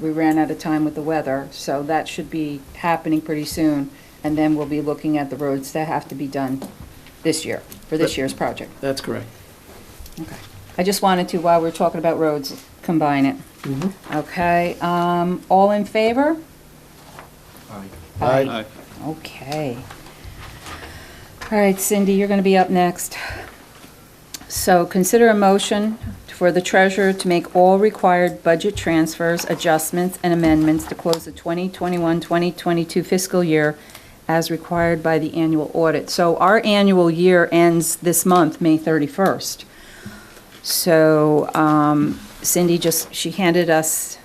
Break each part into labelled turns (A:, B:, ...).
A: we ran out of time with the weather, so that should be happening pretty soon. And then we'll be looking at the roads that have to be done this year, for this year's project.
B: That's correct.
A: Okay. I just wanted to, while we're talking about roads, combine it. Okay, um, all in favor? Aye.
B: Aye.
A: Okay. All right, Cindy, you're going to be up next. So consider a motion for the treasurer to make all required budget transfers, adjustments, and amendments to close the 2021-2022 fiscal year as required by the annual audit. So our annual year ends this month, May 31st. So um, Cindy just, she handed us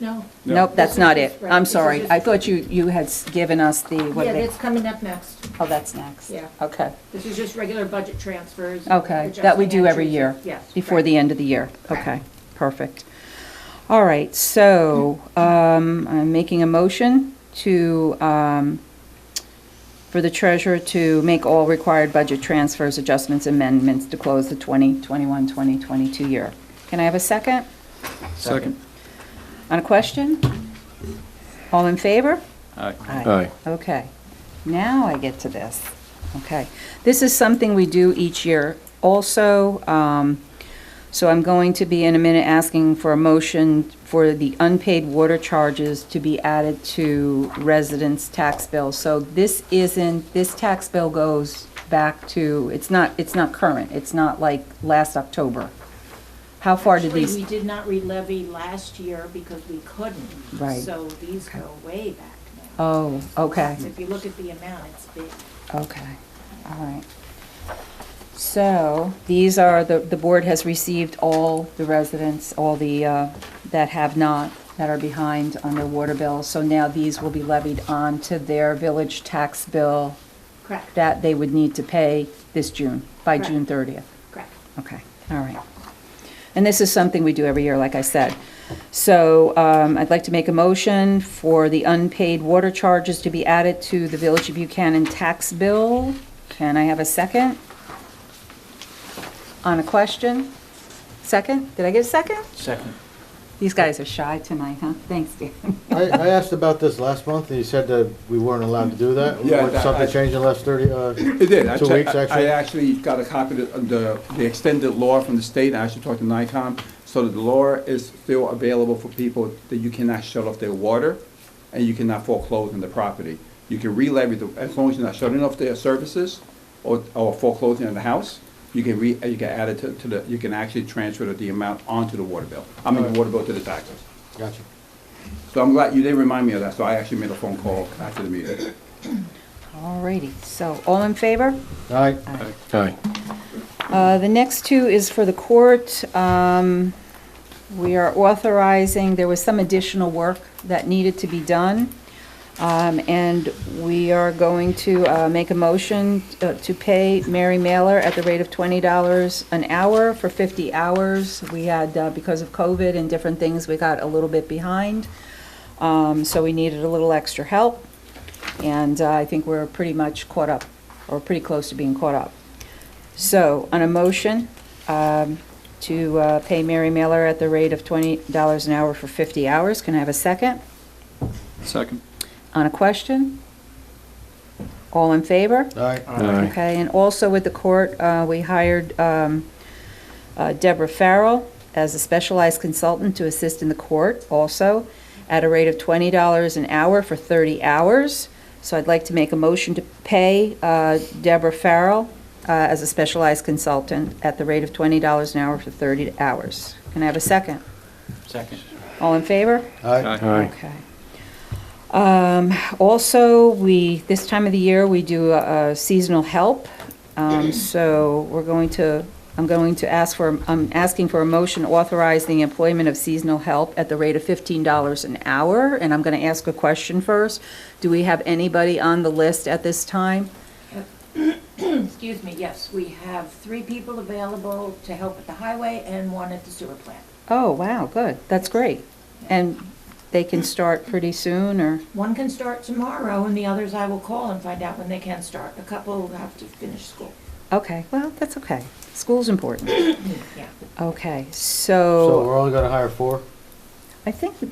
C: No.
A: Nope, that's not it.
C: Right,
A: I'm
C: this is
A: sorry.
C: just-
A: I thought you, you had s- given us the, what
C: Yeah,
A: they-
C: that's coming up next.
A: oh, that's next.
C: Yeah.
A: Okay,
C: This is just regular budget transfers.
A: okay. That we
C: adjusting
A: do every
C: entries.
A: year.
C: Yes.
A: Before
C: right.
A: the end of the year.
C: Correct.
A: Okay, perfect. All right, so um, I'm making a motion to, um, for the treasurer to make all required budget transfers, adjustments, amendments to close the 2021, 2022 year. Can I have a second?
B: Second.
A: On a question? All in favor?
B: Aye.
A: Aye. Okay. Now I get to this. Okay. This is something we do each year also. um, So I'm going to be in a minute asking for a motion for the unpaid water charges to be added to residents' tax bill. So this isn't, this tax bill goes back to, it's not, it's not current. It's not like last October. How far did
C: Actually,
A: these?
C: we did not re-levy last year because we couldn't.
A: Right.
C: So these go way back now.
A: Oh, okay.
C: So If you look at the amount, it's big.
A: Okay, all right. So, these are, the, the board has received all the residents, all the, uh, that have not, that are behind on their water bill. So now these will be levied onto their village tax bill
C: Correct,
A: that they would need to pay this June, by
C: Correct.
A: June 30th.
C: correct.
A: Okay, all right. And this is something we do every year, like I said. So um, I'd like to make a motion for the unpaid water charges to be added to the Village of Buchanan tax bill. Can I have a second? On a question? Second? Did I get a second?
B: Second.
A: These guys are shy tonight, huh? Thanks, Dan.
D: I, I asked about this last month, and you said that we weren't allowed to do that.
E: Yeah,
D: Would
E: that- I-
D: Something changed in the last thirty, uh,
E: It did. I
D: Two
E: checked-
D: weeks,
E: I-
D: actually?
E: I actually got a copy of the, the extended law from the state, I actually talked to NICOM, so that the law is still available for people that you cannot shut off their water, and you cannot foreclose on the property. You can re-levy, the- as long as you're not shutting off their services, or, or foreclosing on the house, you can re, you can add it to, to the, you can actually transfer the amount onto the water bill, I mean, the water bill to the taxes.
D: gotcha.
E: So I'm glad you did remind me of that, so I actually made a phone call after the meeting.
A: All righty, so all in favor?
D: All right,
A: Uh, The next two is for the court. Um, We are authorizing, there was some additional work that needed to be done, Um, and we are going to uh, make a motion uh, to pay Mary Mailer at the rate of $20 an hour for 50 hours. We had, uh, because of COVID and different things, we got a little bit behind, Um, so we needed a little extra help, and uh, I think we're pretty much caught up, or pretty close to being caught up. So, on a motion um, to uh, pay Mary Mailer at the rate of $20 an hour for 50 hours, can I have a second?
B: Second.
A: On a question? All in favor?
D: all right.
A: Okay, and also with the court, uh, we hired um, uh, Deborah Farrell as a specialized consultant to assist in the court also, at a rate of $20 an hour for 30 hours. So I'd like to make a motion to pay uh, Deborah Farrell uh, as a specialized consultant at the rate of $20 an hour for 30 hours. Can I have a second?
B: Second.
A: All in favor?
D: All right,
B: Aye.
A: Okay. Um, Also, we, this time of the year, we do uh, seasonal help. Um, So we're going to, I'm going to ask for, I'm asking for a motion authorizing the employment of seasonal help at the rate of $15 an hour. And I'm going to ask a question first. Do we have anybody on the list at this time?
C: Excuse me, yes, we have three people available to help at the highway and one at the sewer plant.
A: Oh, wow, good. That's great. And they can start pretty soon, or?
C: One can start tomorrow and the others I will call and find out when they can start. A couple have to finish school.
A: Okay, well, that's okay. School's important.
C: Mm, Yeah.
A: Okay,
D: so we're only gonna hire four?
A: I think